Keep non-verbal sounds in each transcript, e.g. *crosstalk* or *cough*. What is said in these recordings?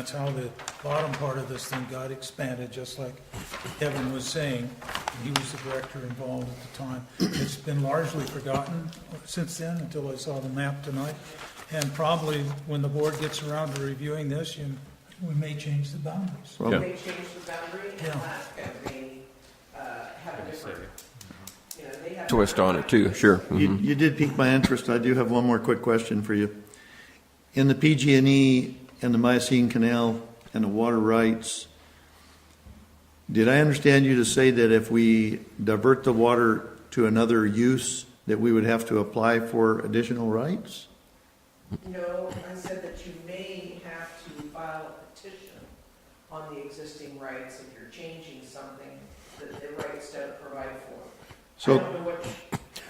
That's how the bottom part of this thing got expanded, just like Kevin was saying. He was the director involved at the time. It's been largely forgotten since then, until I saw the map tonight. And probably when the board gets around to reviewing this, you, we may change the boundaries. Yeah. They changed the boundary in Yeah. Alaska, they, uh, have a different, you know, they have. twist on it too, sure. Mhm. You, you did pique my interest. I do have one more quick question for you. In the PG&E and the Miocene Canal and the water rights, did I understand you to say that if we divert the water to another use, that we would have to apply for additional rights? No, I said that you may have to file a petition on the existing rights if you're changing something that the rights don't provide for. I So- don't know what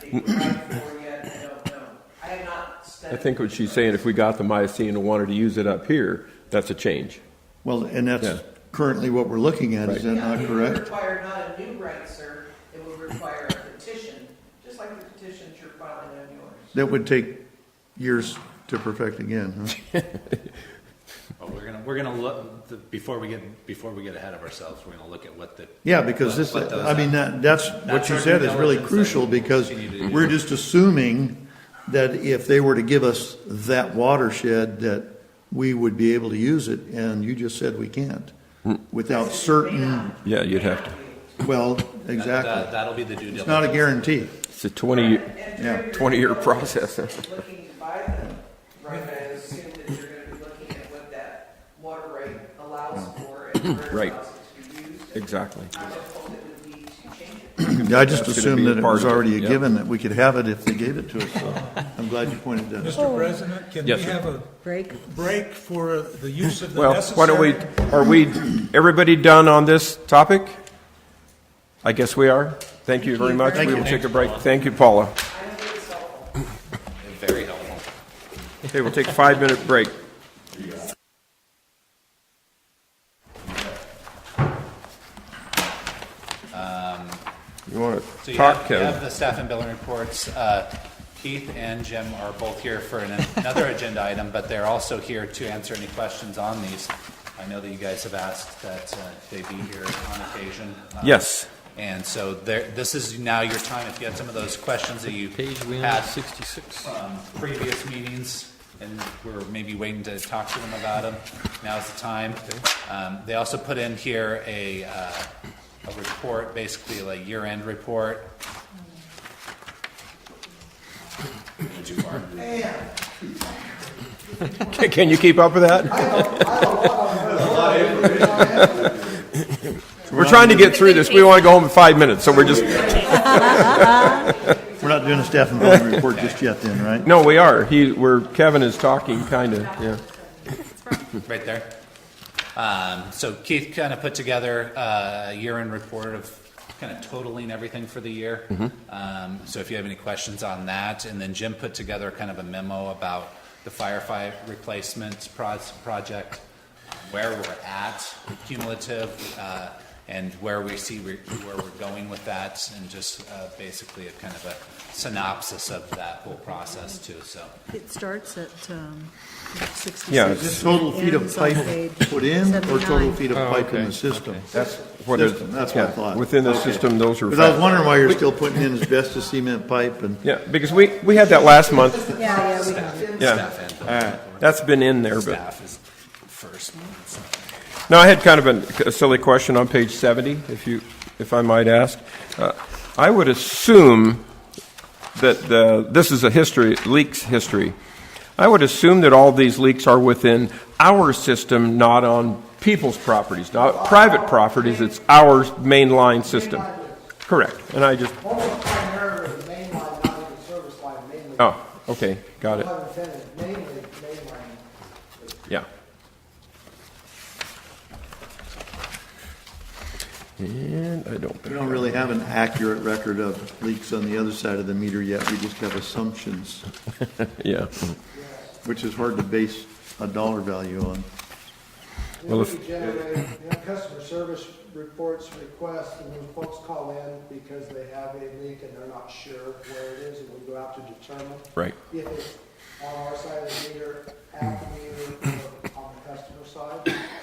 they provide for yet, I don't know. I have not I studied. think what she's saying, if we got the Miocene and wanted to use it up here, that's a change. Well, and Yeah. that's currently what we're looking at, is that Yeah, not it would correct? require not a new right, sir, it would require a petition, just like the petition that you're filing on yours. That would take years to perfect again, huh? Well, we're gonna, we're gonna look, the- before we get, before we get ahead of ourselves, we're gonna look at what the. Yeah, because this, what those I mean, that, that's, what you said is really That's our due diligence crucial, that we because continue to do. we're just assuming that if they were to give us that watershed, that we would be able to use it, and you just said we can't, Hmm. without certain, Yeah, you'd have to. well, that- that- exactly. That'll be the due It's not diligence. a guarantee. It's a And 20, Yeah. Treasury 20-year Bill is process. Looking to buy them, right, I assume that you're gonna be looking at what that water rate allows for and where it Right. allows it to be used. and exactly. I would hope it would lead to changes. I just That's gonna assumed be that it part was of it, already a yeah. given, that we could have it if they gave it to us, *laughs* so I'm glad you pointed that out. Mr. President, can we Oh. Yes, sir. have a break. break for the use of the Well, necessary? why don't we, are we, everybody done on this topic? I guess we are. Thank you very much. We will take a break. Thank you, Paula. Very helpful. Okay, we'll take a five-minute break. You want Um, So to you talk, have, you Kevin? have the staff and billing reports. Uh, Keith and Jim are both here for an- another agenda item, but they're also here to answer any questions on these. I know that you guys have asked that uh, they be here on occasion. Uh, Yes. And so there, this is now your time. If you had some of those questions that you Page we had have sixty-six. um, previous meetings, and we're maybe waiting to talk to them about them. Now's the time. Um, They also put in here a, uh, a report, basically like year-end report. Went too far. *laughs* Can you keep up with that? *laughs* We're trying to get through this. We want to go home in five minutes, so we're just, We're not doing a staff and building report just yet then, right? no, we are. He, we're, Kevin is talking, kind of, yeah. right there. Um, so Keith kind of put together uh, a year-end report of kind of totaling everything for the year. Um, so if you have any questions on that, and then Jim put together kind of a memo about the firefight replacements pros- project, um, where we're at cumulative, uh, and where we see we where we're going with that, and just uh, basically a kind of a synopsis of that whole process too. So. It starts at um, 66. Yeah, Is this total feet of Ends on pipe page put in, or total 79. feet of Oh, pipe in the system? That's what it- System, that's what I yeah, thought. Within the Okay. system, those are. Because I was fact- wondering why you're still putting in asbestos cement pipe and, Yeah, because we, we had that last month. Yeah, yeah, we got it. Yeah, Staff and that's been in there, but. staff is first. Now, I had kind of an- a silly question on page 70, if you, if I might ask. Uh, I would assume that the, this is a history, leaks history. I would assume that all these leaks are within our system, not on people's properties, not private properties. It's our mainline system. Correct. And I just, Almost primarily mainline, not even service line, mainly. oh, okay, got it. Pun intended, mainly mainline. Yeah. And I don't. we don't really have an accurate record of leaks on the other side of the meter yet. We just have assumptions, Yeah. which is hard to base a dollar value on. Then Well, we if- generate, you know, customer service reports, requests, and when folks call in because they have a leak and they're not sure where it is, and we go out to determine Right. if it's on our side of the meter, at the meter, or on the customer side.